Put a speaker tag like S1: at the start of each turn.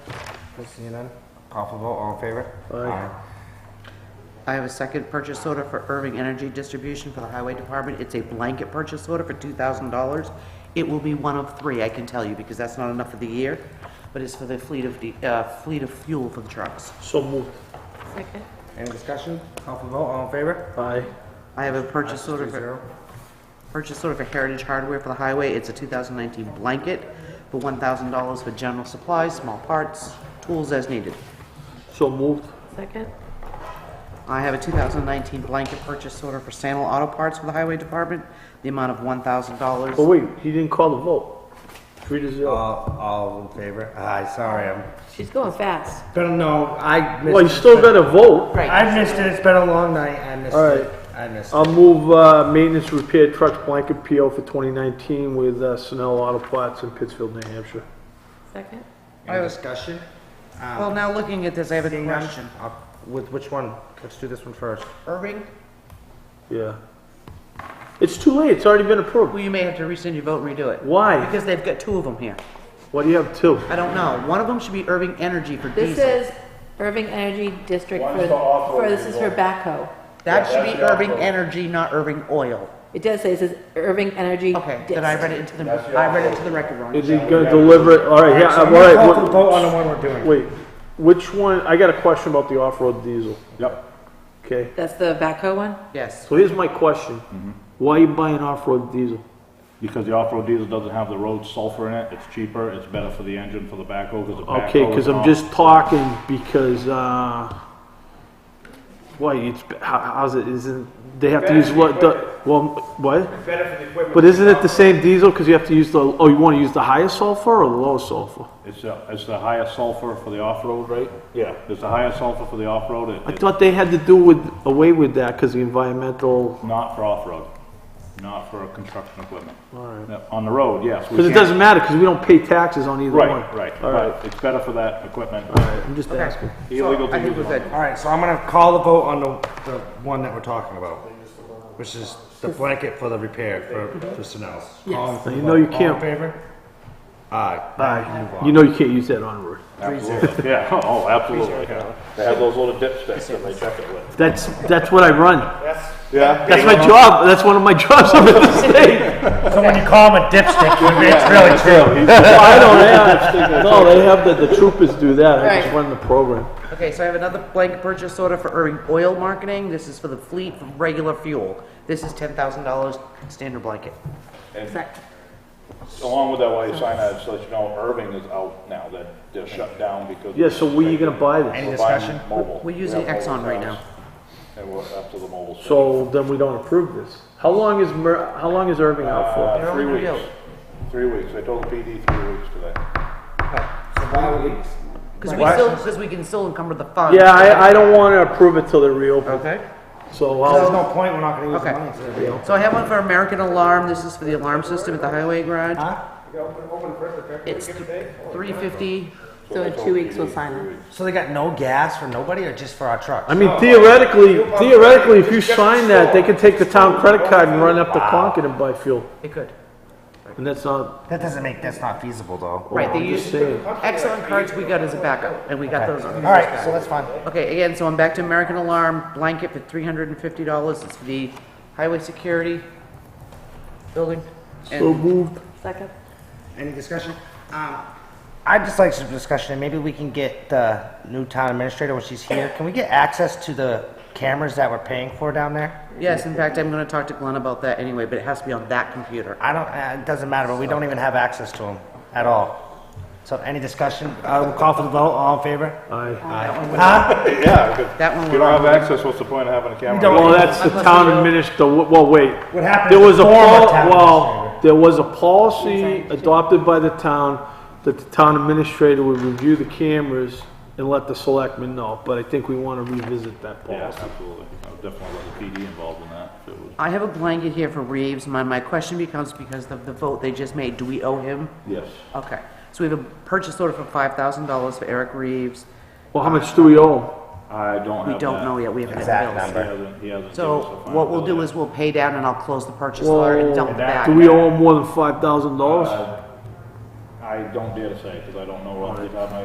S1: Okay, seeing none, call for vote, all in favor? Aye.
S2: I have a second purchase order for Irving Energy Distribution for the Highway Department. It's a blanket purchase order for $2,000. It will be one of three, I can tell you, because that's not enough for the year, but it's for the fleet of, de- uh, fleet of fuel for the trucks.
S3: So moved.
S4: Second.
S1: Any discussion? Call for vote, all in favor?
S3: Aye.
S2: I have a purchase order
S1: Three
S2: for,
S1: zero.
S2: purchase order for Heritage Hardware for the highway. It's a 2019 blanket for $1,000 for general supplies, small parts, tools as needed.
S3: So moved.
S4: Second.
S2: I have a 2019 blanket purchase order for Sandal Auto Parts for the Highway Department, the amount of $1,000.
S3: Oh, wait, he didn't call the vote. Three to zero.
S1: All, all in favor? Aye, sorry, I'm,
S4: She's going fast.
S1: been, no, I missed.
S3: Well, you still
S1: it.
S3: gotta vote.
S2: Right.
S1: I missed it, it's been a long night, I missed
S3: All
S1: it,
S3: right.
S1: I missed it.
S3: I'll move, uh, maintenance repair trucks blanket PO for 2019 with, uh, Snell Auto Parts in Pittsfield, New Hampshire.
S4: Second.
S1: Any discussion?
S2: Well, now looking at this, I have a
S1: Seeing none?
S2: question.
S1: I'll- With which one? Let's do this one first.
S2: Irving,
S3: Yeah. It's too late, it's already been approved.
S2: well, you may have to rescind your vote and redo it.
S3: Why?
S2: Because they've got two of them here.
S3: Why do you have two?
S2: I don't know. One of them should be Irving Energy for
S4: This
S2: diesel.
S4: is Irving Energy District
S5: One's
S4: for,
S5: for off-road
S4: for, this is for backhoe.
S2: That should
S5: that's
S2: be
S5: the
S2: Irving
S5: off-road.
S2: Energy, not Irving Oil.
S4: It does say, it says Irving Energy.
S2: Okay,
S4: Dis-
S2: then I read it into the,
S5: That's the
S2: I read it to the record wrong.
S3: Is he gonna deliver it? All right, yeah,
S1: So
S3: all
S1: I'm gonna call for
S3: right.
S1: the vote on
S3: what-
S1: the one we're doing.
S3: Wait, which one, I got a question about the off-road diesel,
S5: Yep.
S3: okay?
S4: That's the backhoe one?
S2: Yes.
S3: So here's my question. Why are you buying off-road diesel?
S5: Because the off-road diesel doesn't have the road sulfur in it, it's cheaper, it's better for the engine, for the backhoe, because the backhoe.
S3: Okay, because
S5: is
S3: I'm
S5: off-
S3: just talking because, uh, why, it's, how, how's it, isn't, they have to use what, the- well, what? But isn't it the same diesel, because you have to use the, oh, you want to use the highest sulfur or the lowest sulfur?
S5: It's, the- it's the highest sulfur for the off-road, right?
S3: Yeah.
S5: It's the highest sulfur for the off-road, it-
S3: I
S5: it's
S3: thought they had to do with, away with that because the environmental,
S5: not for off-road, not for construction equipment.
S3: Alright.
S5: Now, On the road, yes. we
S3: because it
S5: can't-
S3: doesn't matter, because we don't pay taxes on either one.
S5: Right, right,
S3: All right,
S5: but it's better for that equipment.
S3: I'm just asking.
S5: Illegal
S2: I
S5: to
S2: think
S5: use
S2: we're
S5: it on.
S2: good.
S1: All right, so I'm gonna call the vote on the, the one that we're talking about, which is the blanket for the repair for, for Sunel. Yes.
S3: You know you
S1: All in
S3: can't-
S1: favor? Aye.
S3: You know you can't use that on road.
S5: Absolutely. Yeah, oh, absolutely, yeah. They have those little dipsticks that they check it with.
S3: That's, that's what I run.
S5: Yeah.
S3: That's my job, that's one of my jobs up at the state.
S1: So when you call him a dipstick, you admit it's really true.
S3: I don't have, no, they have the, the troopers do that, I just
S2: Right.
S3: run the program.
S2: Okay, so I have another blank purchase order for Irving Oil Marketing. This is for the fleet for regular fuel. This is $10,000 standard blanket.
S4: Second.
S5: Along with that, while you sign that, so that you know Irving is out now, that they're shut down because.
S3: Yeah, so where you gonna buy this?
S1: Any
S5: We're buying
S1: discussion?
S5: mobile.
S2: We're using
S5: We have mobile
S2: Exxon right
S5: towers,
S2: now.
S5: And we're up to the mobile. stuff.
S3: So then we don't approve this. How long is Mer, how long is Irving out for?
S5: Uh, three
S2: They're on
S5: weeks, three weeks. I told the PD three weeks today.
S2: Because we
S1: What?
S2: still, because we can still encumber the fund.
S3: Yeah, I, I don't wanna approve it till they reopen,
S2: Okay.
S3: so
S1: There's
S3: I'll,
S1: no point, we're not gonna use the
S2: Okay.
S1: money to the
S2: So I have one for American Alarm. This is for the alarm system at the highway garage. It's three fifty.
S4: So in two weeks, we'll sign it.
S1: So they got no gas for nobody or just for our truck?
S3: I mean theoretically, theoretically, if you sign that, they could take the town credit card and run up to Concord and buy fuel.
S2: It could.
S3: And that's not,
S1: That doesn't make, that's not feasible though.
S2: Right, they
S3: Oh, I'm just
S2: use,
S3: saying.
S2: excellent cards we got as a backup, and we got those
S1: All
S2: on.
S1: right, so that's fine.
S2: Okay, again, so I'm back to American Alarm blanket for three hundred and fifty dollars. It's for the highway security building.
S3: So moved.
S4: Second.
S1: Any discussion? Um, I'd just like some discussion, and maybe we can get the new town administrator when she's here. Can we get access to the cameras that we're paying for down there?
S2: Yes, in fact, I'm gonna talk to Glenn about that anyway, but it has to be on that computer.
S1: I don't, uh, it doesn't matter, but we don't even have access to them at all. So any discussion? Uh, we'll call for the vote, all in favor?
S3: Aye.
S1: Huh?
S5: Yeah, good.
S2: That one
S5: If
S2: we're
S5: you don't
S2: on.
S5: have access, what's the point of having a camera?
S1: don't-
S3: Well, that's the
S2: Unless
S3: town
S2: you go-
S3: administrator, well, wait.
S1: What happened
S3: There
S1: is
S3: was
S1: the
S3: a,
S1: former
S3: pol-
S1: town
S3: well,
S1: administrator.
S3: there was a policy adopted by the town that the town administrator would review the cameras and let the selectmen know, but I think we want to revisit that
S5: Yeah,
S3: policy.
S5: absolutely. I would definitely let the PD involved in that. if it was-
S2: I have a blanket here for Reeves. My, my question becomes because of the vote they just made, do we owe him?
S5: Yes.
S2: Okay, so we have a purchase order for five thousand dollars for Eric Reeves.
S3: Well, how much do we owe?
S5: I don't have
S2: We don't
S5: that.
S2: know yet, we haven't
S1: Exact
S2: been
S5: He
S2: billed.
S1: number.
S5: hasn't, he hasn't.
S2: So
S5: given us a
S2: what
S5: final
S2: we'll do
S5: bill
S2: is
S5: yet.
S2: we'll pay down and I'll close the purchase order and dump it back.
S3: Do we
S1: Uh,
S3: owe him more than five thousand dollars?
S5: I don't dare to say, because I don't know off the top of my